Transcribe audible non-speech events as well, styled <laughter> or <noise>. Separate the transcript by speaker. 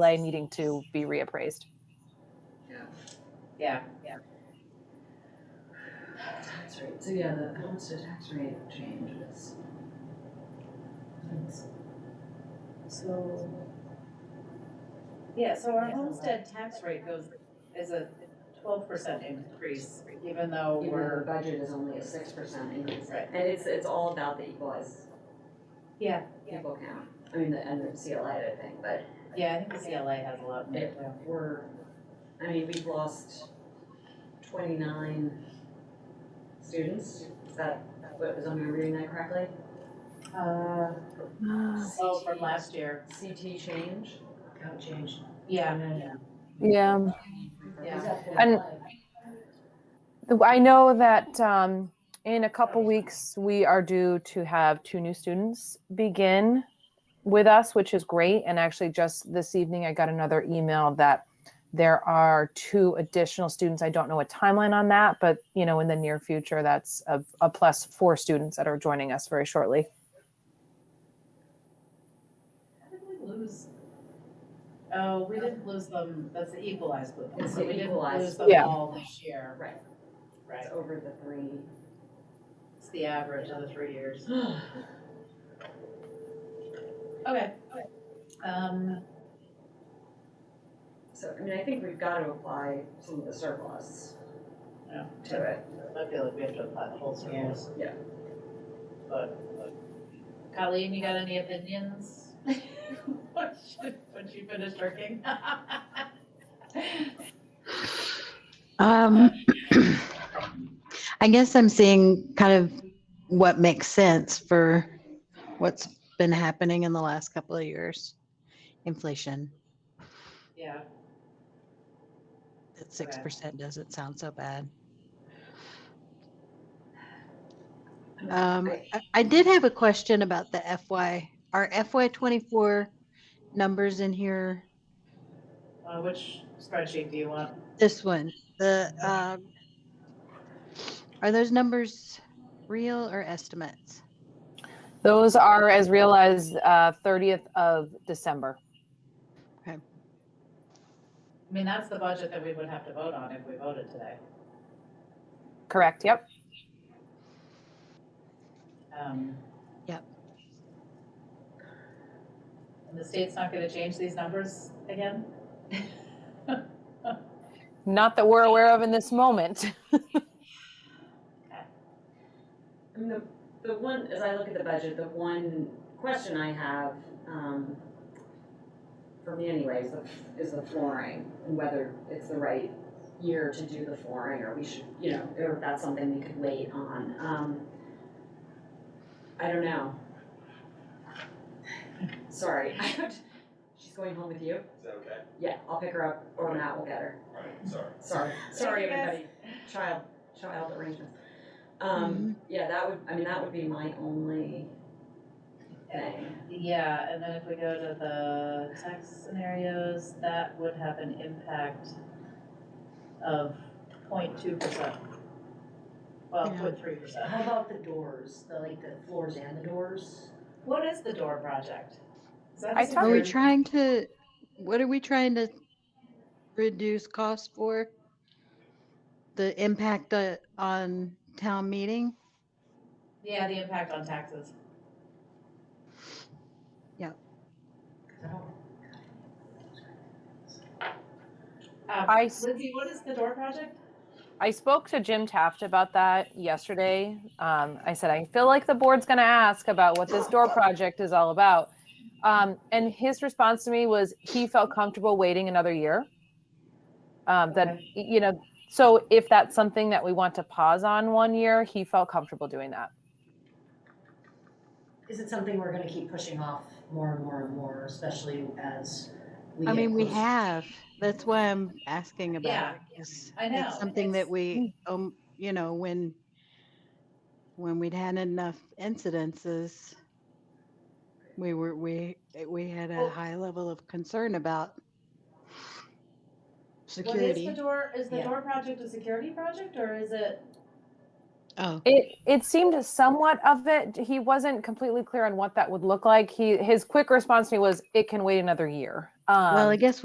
Speaker 1: lay needing to be reappraised.
Speaker 2: Yeah,
Speaker 3: Tax rate, so yeah, the homestead tax rate change was. thanks. So.
Speaker 2: yeah, so our homestead tax rate goes, is a twelve percent increase, even though
Speaker 3: Even though the
Speaker 2: we're,
Speaker 3: budget is only a six percent increase.
Speaker 2: Right.
Speaker 3: And it's, it's all about the equalized
Speaker 2: yeah,
Speaker 3: people count, I mean, the, and the CLA, I think, but
Speaker 2: yeah, I think the CLA has a lot in it too.
Speaker 3: we're, I mean, we've lost twenty-nine students, is that, what, was I remembering that correctly?
Speaker 2: Uh, oh, from last year,
Speaker 3: CT change. Count change.
Speaker 2: yeah,
Speaker 1: <gasps> Yeah.
Speaker 2: yeah,
Speaker 1: And- I know that um, in a couple weeks, we are due to have two new students begin with us, which is great. And actually, just this evening, I got another email that there are two additional students. I don't know a timeline on that, but you know, in the near future, that's a, a plus four students that are joining us very shortly.
Speaker 2: How did we lose? Oh, we didn't lose them, that's the equalized group,
Speaker 3: It's
Speaker 2: so
Speaker 3: the
Speaker 2: we didn't
Speaker 3: equalized.
Speaker 2: lose them
Speaker 1: Yeah.
Speaker 2: all this year.
Speaker 3: Right.
Speaker 2: Right,
Speaker 3: It's over the three. <gasps>
Speaker 2: it's the average of the three years. Okay, um,
Speaker 3: So, I mean, I think we've got to apply some of the surplus
Speaker 2: yeah,
Speaker 3: to it.
Speaker 2: I feel like we have to apply the whole service.
Speaker 3: Yeah.
Speaker 2: But, Colleen, you got any opinions? <laughs> Once you- once you finish working? <laughs>
Speaker 4: Um, <clears throat> I guess I'm seeing kind of what makes sense for what's been happening in the last couple of years. Inflation
Speaker 2: Yeah,
Speaker 4: at six percent doesn't sound so bad. Um, I- I did have a question about the FY, are FY twenty-four numbers in here?
Speaker 2: uh, which spreadsheet do you want?
Speaker 4: This one, the, um, are those numbers real or estimates?
Speaker 1: Those are as real as uh, 30th of December.
Speaker 2: I mean, that's the budget that we would have to vote on if we voted today.
Speaker 1: Correct. Yep.
Speaker 2: Um,
Speaker 4: Yep.
Speaker 2: And the state's not gonna change these numbers again?
Speaker 1: Not that we're aware of in this moment. <laughs>
Speaker 3: I mean, the, the one, as I look at the budget, the one question I have, um, for me anyway, is the, is the flooring, and whether it's the right year to do the flooring, or we should, you know, or if that's something we could wait on, um, I don't know. Sorry, <laughs> she's going home with you?
Speaker 5: Is that okay?
Speaker 3: Yeah, I'll pick her up, or Matt will get her.
Speaker 5: All right, sorry.
Speaker 3: Sorry, sorry,
Speaker 2: Yes.
Speaker 3: everybody. Child, child arrangements. Um, yeah, that would, I mean, that would be my only thing.
Speaker 2: Yeah, and then if we go to the tax scenarios, that would have an impact of 0.2 percent. Well,
Speaker 4: Yeah.
Speaker 2: 0.3 percent.
Speaker 6: How about the doors, the like the floors and the doors?
Speaker 2: What is the door project? Is that
Speaker 1: I
Speaker 2: the
Speaker 1: thought
Speaker 4: Are we
Speaker 1: Sorry.
Speaker 4: trying to, what are we trying to reduce costs for? The impact uh, on town meeting?
Speaker 2: Yeah, the impact on taxes.
Speaker 4: Yeah.
Speaker 2: Um,
Speaker 1: I s-
Speaker 2: Lindsay, what is the door project?
Speaker 1: I spoke to Jim Taft about that yesterday. Um, I said, I feel like the board's going to ask about what this door project is all about. Um, and his response to me was he felt comfortable waiting another year. Um, that,
Speaker 2: Okay.
Speaker 1: you know, so if that's something that we want to pause on one year, he felt comfortable doing that.
Speaker 6: Is it something we're gonna keep pushing off more and more and more, especially as we
Speaker 4: I
Speaker 6: get
Speaker 4: mean, we
Speaker 6: closer?
Speaker 4: have, that's why I'm asking about
Speaker 2: Yeah,
Speaker 4: it. 'cause
Speaker 2: I know,
Speaker 4: It's something
Speaker 2: it's- mm.
Speaker 4: that we, um, you know, when, when we'd had enough incidences, we were, we, we had a
Speaker 2: Well-
Speaker 4: high level of concern about
Speaker 2: What is the
Speaker 4: security.
Speaker 2: door, is the
Speaker 6: Yeah.
Speaker 2: door project a security project or is it?
Speaker 4: Oh,
Speaker 1: It it seemed somewhat of it. He wasn't completely clear on what that would look like. He his quick response to me was, "It can wait another year." Um,
Speaker 4: Well, I guess